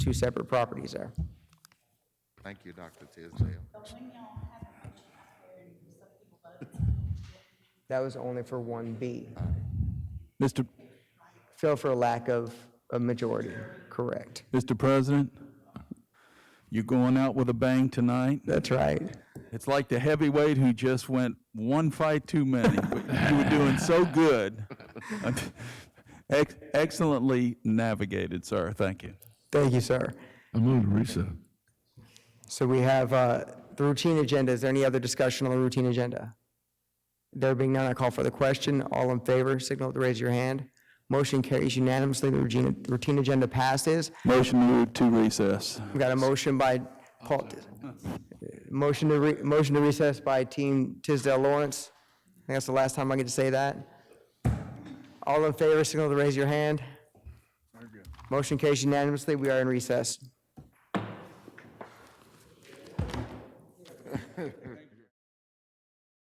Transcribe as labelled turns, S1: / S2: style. S1: two separate properties there.
S2: Thank you, Dr. Tisdale.
S1: That was only for 1B.
S3: Mr.
S1: Fell for a lack of a majority, correct.
S3: Mr. President, you're going out with a bang tonight.
S1: That's right.
S3: It's like the heavyweight who just went one fight too many. you were doing so good. Ex- excellently navigated, sir. Thank you.
S1: Thank you, sir.
S4: I move to recess.
S1: So we have uh, the routine agenda. Is there any other discussion on the routine agenda? There being none, I call for the question. All in favor, signal to raise your hand. Motion carries unanimously. The routine routine agenda passes.
S3: Motion to move to recess.
S1: We've got a motion by Paul, motion to, re- motion to recess by Team Tisdale Lawrence. I think that's the last time I get to say that. All in favor, signal to raise your hand. Motion carries unanimously. We are in recess.